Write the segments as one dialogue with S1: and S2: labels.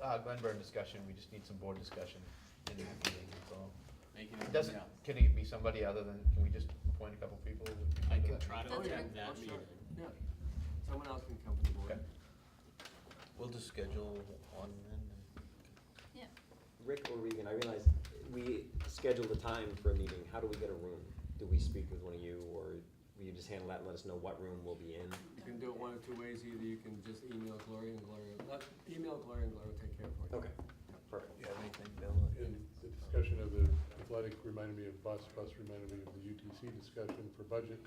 S1: Todd Glenburn Uh, discussion, we just need some board discussion in that meeting, that's all.
S2: Making
S1: It
S3: Mm-hmm.
S2: it,
S1: doesn't,
S2: yeah.
S1: can it be somebody other than, can we just appoint a couple people?
S2: I can try to attend
S4: That's okay.
S2: that
S4: Oh,
S2: meeting.
S4: sure. Yeah, someone else can come from the board.
S1: Okay.
S3: We'll just schedule one then.
S4: Yeah,
S5: Rick or Regan, I realize we scheduled a time for a meeting. How do we get a room? Do we speak with one of you or will you just handle that and let us know what room we'll be in?
S4: Okay.
S6: You can do it one of two ways, either you can just email Gloria and Gloria, let, email Gloria and Gloria will take care of it.
S5: Okay, perfect.
S3: You have anything, Bill?
S7: And the discussion of the athletic reminded me of bus, bus reminded me of the UTC discussion for budget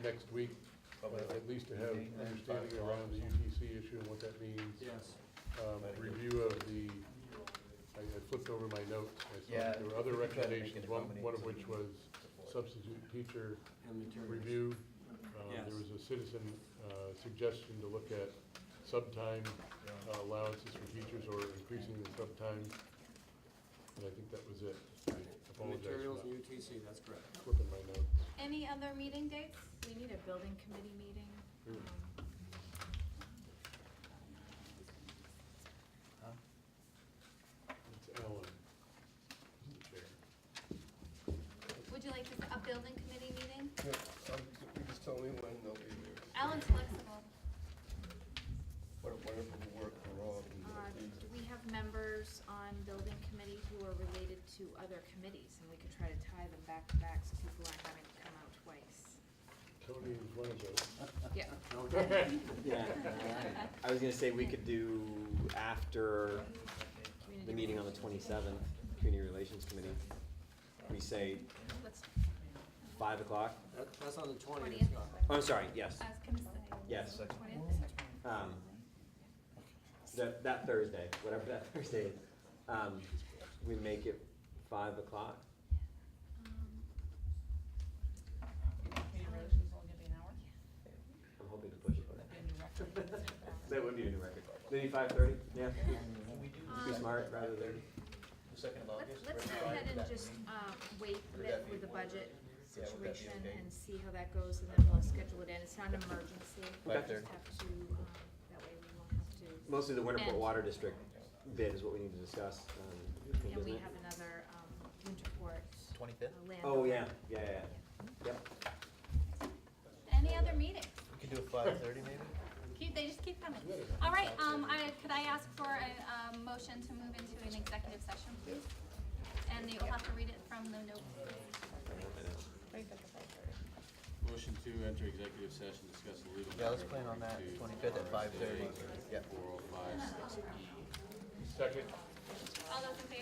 S7: next week. uh, At least to have an understanding around the UTC issue and what that means.
S6: Yes,
S7: Um, Review of the, I I flipped over my notes, I saw that there were other
S1: Yeah, we tried to make
S7: recommendations,
S1: it
S7: one,
S1: accommodate
S7: one of
S1: some
S7: which was
S1: support.
S7: substitute teacher
S6: and materials.
S7: review. Uh,
S6: Yes.
S7: There was a citizen uh, suggestion to look at subtime uh, allowances for teachers or increasing the subtime. And I think that was it. I
S6: And
S7: apologize
S6: materials
S7: for
S6: and
S7: not
S6: UTC, that's correct.
S7: flipping my notes.
S4: any other meeting dates? We need a building committee meeting.
S8: Hmm.
S7: Mm.
S4: um,
S7: It's Alan. who's the chair.
S4: Would you like to- a building committee meeting?
S8: Yeah, um, you just tell me when they'll be here.
S4: Alan's flexible.
S8: What a wonderful work we're all doing.
S9: Uh, We have members on building committee who are related to other committees, and we could try to tie them back to back so people aren't having to come out twice.
S7: Tony is one of those.
S9: Yeah.
S5: Yeah, I was gonna say we could do after the meeting on the twenty-seventh, Community Relations Committee. We say
S9: Let's,
S5: five o'clock.
S6: That, that's on the twentieth,
S9: Twentieth.
S6: Scott.
S5: Oh, I'm sorry, yes,
S4: I was gonna say.
S5: yes.
S4: Twentieth?
S5: Um, that, that Thursday, whatever that Thursday is, um, we make it five o'clock.
S9: um,
S5: I'm hoping to push it for that. That would be a new record. Maybe five thirty, yeah.
S1: Can we do
S9: um,
S1: the
S5: Be
S1: second-
S5: smart rather than,
S1: The second of
S9: let's,
S1: August?
S9: let's
S1: right?
S9: go ahead and
S1: That
S9: just,
S1: meeting?
S9: uh, wait a
S1: that
S9: bit
S1: be
S9: with the
S1: one of
S9: budget
S1: Yeah, would that be
S9: situation
S1: okay?
S9: and see how that goes, and then we'll schedule it in. It's not an emergency. We
S5: Okay.
S9: just have to, um, that way we won't have to,
S5: mostly the
S9: And-
S5: Winterport Water District bid is what we need to discuss, um,
S9: and
S5: isn't
S9: we
S5: it?
S9: have another, um, Winterport uh,
S3: Twenty-fifth?
S9: land.
S5: Oh, yeah, yeah, yeah, yeah. Yep.
S4: Any other meetings?
S3: We could do a five-thirty maybe?
S4: Keep, they just keep coming. All right, um, I, could I ask for a, um, motion to move into an executive session, please? And you'll have to read it from the notes.
S2: Motion to enter executive session, discuss the legal.
S3: Yeah, let's plan on that, twenty-fifth at five-thirty. Yep.
S2: oh Four oh five six E.
S7: Second.
S4: All those in